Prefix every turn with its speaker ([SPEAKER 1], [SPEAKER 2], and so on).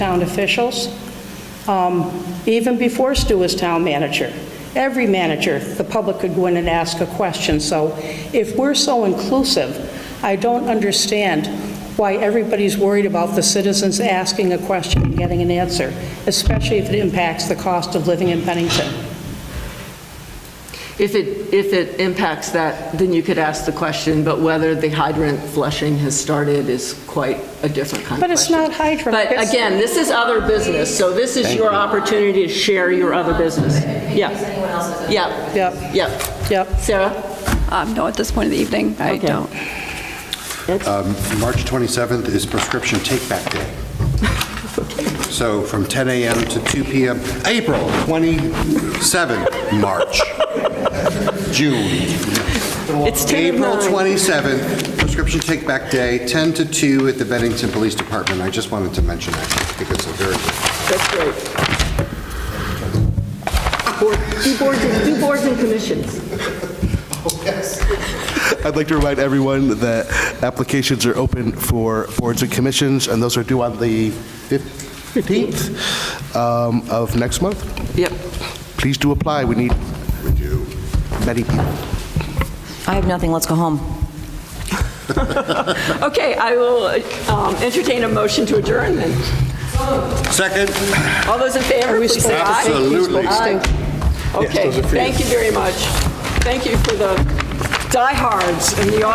[SPEAKER 1] town officials, um, even before Stu was town manager. Every manager, the public could go in and ask a question. So if we're so inclusive, I don't understand why everybody's worried about the citizens asking a question and getting an answer, especially if it impacts the cost of living in Bennington.
[SPEAKER 2] If it, if it impacts that, then you could ask the question, but whether the hydrant flushing has started is quite a different kind of
[SPEAKER 1] But
[SPEAKER 2] question.
[SPEAKER 1] it's not hydrant,
[SPEAKER 2] But
[SPEAKER 1] it's-
[SPEAKER 2] again, this is other business, so this is your opportunity to share your other business. Yeah. Yeah.
[SPEAKER 1] Yep.
[SPEAKER 2] Yeah.
[SPEAKER 1] Yep.
[SPEAKER 2] Sarah?
[SPEAKER 3] Um, No, at this point of the evening, I
[SPEAKER 2] Okay.
[SPEAKER 3] don't.
[SPEAKER 4] Um, March 27th is prescription take-back day. So from 10 a.m. to 2 p.m., April 27th, March, June.
[SPEAKER 2] It's 10
[SPEAKER 4] April
[SPEAKER 2] of 9.
[SPEAKER 4] 27th, prescription take-back day, 10 to 2 at the Bennington Police Department. I just wanted to mention that because it's a very
[SPEAKER 2] That's great. Board- Do boards and- do boards and commissions.
[SPEAKER 5] I'd like to remind everyone that applications are open for boards and commissions, and those are due on the 15th um, of next month.
[SPEAKER 2] Yep.
[SPEAKER 5] Please do apply. We need many people.
[SPEAKER 6] I have nothing, let's go home.
[SPEAKER 2] Okay, I will um, entertain a motion to adjourn then.
[SPEAKER 4] Second?
[SPEAKER 2] All those in favor, please say aye.
[SPEAKER 4] Absolutely.
[SPEAKER 2] Aye. Okay, thank you very much. Thank you for the diehards in the audience.